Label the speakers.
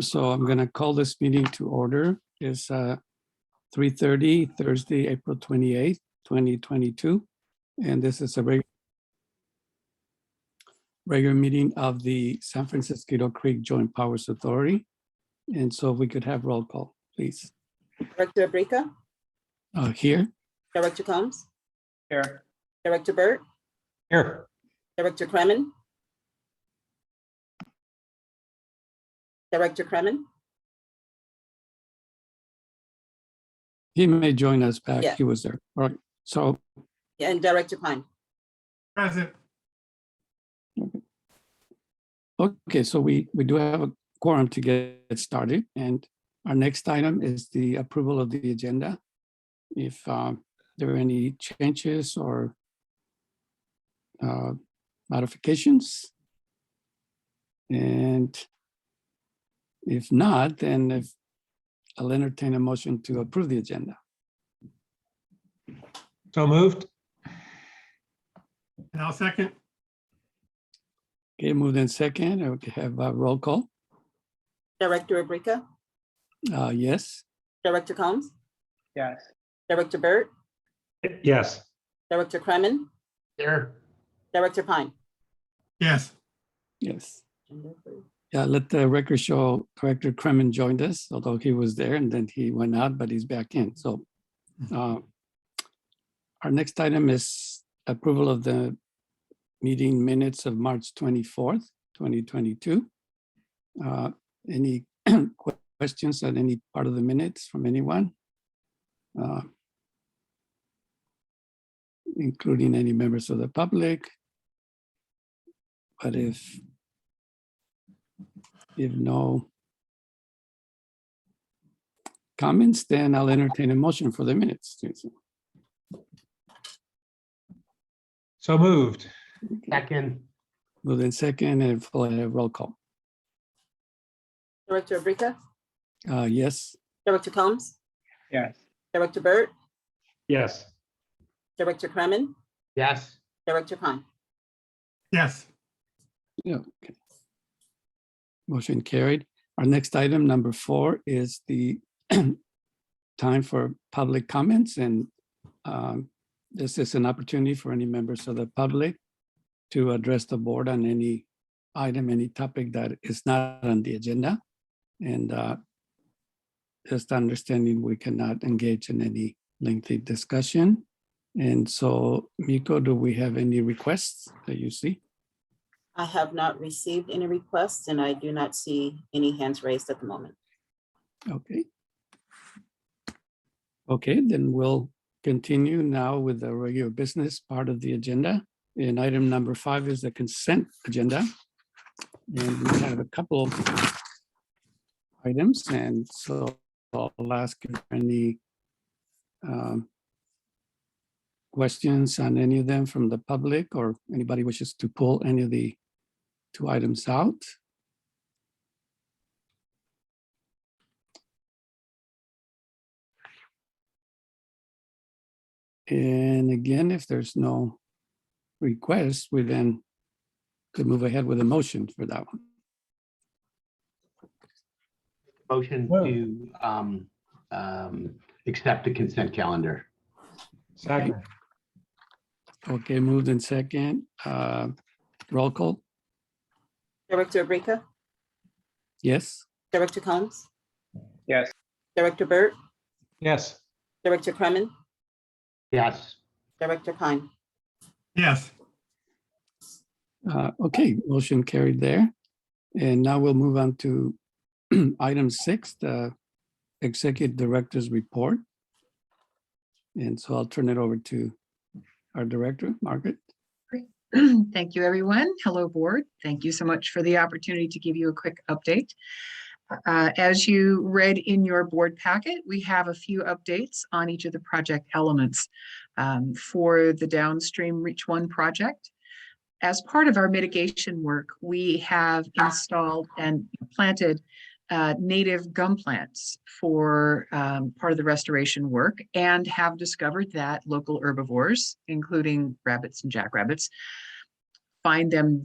Speaker 1: So I'm going to call this meeting to order. It's uh, 3:30 Thursday, April 28th, 2022. And this is a reg- regular meeting of the San Francisco Creek Joint Powers Authority. And so if we could have roll call, please.
Speaker 2: Director Abrika,
Speaker 1: Uh, Here,
Speaker 2: Director Combs,
Speaker 3: Here.
Speaker 2: Director Burt,
Speaker 3: Here.
Speaker 2: Director Kremen. Director Kremen,
Speaker 1: he may join us back.
Speaker 2: Yeah.
Speaker 1: He was there. All right. So
Speaker 2: and Director Pine.
Speaker 3: Present.
Speaker 1: Okay, so we, we do have a quorum to get started, and our next item is the approval of the agenda. If um, there are any changes or uh, modifications. And if not, then if, I'll entertain a motion to approve the agenda.
Speaker 3: So moved. And I'll second.
Speaker 1: Okay, moved in second, I would have a roll call.
Speaker 2: Director Abrika,
Speaker 1: Uh, Yes,
Speaker 2: Director Combs,
Speaker 3: Yes.
Speaker 2: Director Burt,
Speaker 3: Yes.
Speaker 2: Director Kremen,
Speaker 3: Here.
Speaker 2: Director Pine.
Speaker 3: Yes.
Speaker 1: yes. Yeah, let the record show Director Kremen joined us, although he was there and then he went out, but he's back in, so. uh, Our next item is approval of the meeting minutes of March twenty-fourth, twenty twenty-two. Uh, Any que- questions on any part of the minutes from anyone? Uh, Including any members of the public? But if if no comments, then I'll entertain a motion for the minutes. Susan.
Speaker 4: So moved.
Speaker 1: Okay.
Speaker 3: Second.
Speaker 1: Move in second and we'll have roll call.
Speaker 2: Director Abrika,
Speaker 1: Uh, yes,
Speaker 2: Director Combs,
Speaker 3: Yes.
Speaker 2: Director Burt,
Speaker 4: Yes.
Speaker 2: Director Kremen,
Speaker 3: Yes.
Speaker 2: Director Pine.
Speaker 3: Yes.
Speaker 1: yeah. okay. Motion carried. Our next item, number four, is the time for public comments and um, this is an opportunity for any members of the public to address the board on any item, any topic that is not on the agenda. And uh, just understanding we cannot engage in any lengthy discussion. And so, Miko, do we have any requests that you see?
Speaker 2: I have not received any requests and I do not see any hands raised at the moment.
Speaker 1: Okay. Okay, then we'll continue now with the regular business part of the agenda. And item number five is the consent agenda. And we have a couple of items, and so I'll ask if any um, questions on any of them from the public or anybody wishes to pull any of the two items out. And again, if there's no request, we then could move ahead with a motion for that one.
Speaker 5: Motion
Speaker 4: Well-
Speaker 5: to um, um, accept the consent calendar.
Speaker 4: Second.
Speaker 1: Okay, moved in second. Uh, Roll call,
Speaker 2: Director Abrika,
Speaker 1: yes?
Speaker 2: Director Combs,
Speaker 3: Yes.
Speaker 2: Director Burt,
Speaker 4: Yes.
Speaker 2: Director Kremen,
Speaker 5: Yes,
Speaker 2: Director Pine.
Speaker 3: Yes.
Speaker 1: Uh, Okay, motion carried there. And now we'll move on to item six, the Executive Director's Report. And so I'll turn it over to our Director, Margaret.
Speaker 6: Thank you, everyone. Hello, Board. Thank you so much for the opportunity to give you a quick update. Uh, As you read in your board packet, we have a few updates on each of the project elements um, for the downstream Reach One project. As part of our mitigation work, we have installed and planted uh, native gum plants for um, part of the restoration work and have discovered that local herbivores, including rabbits and jackrabbits, find them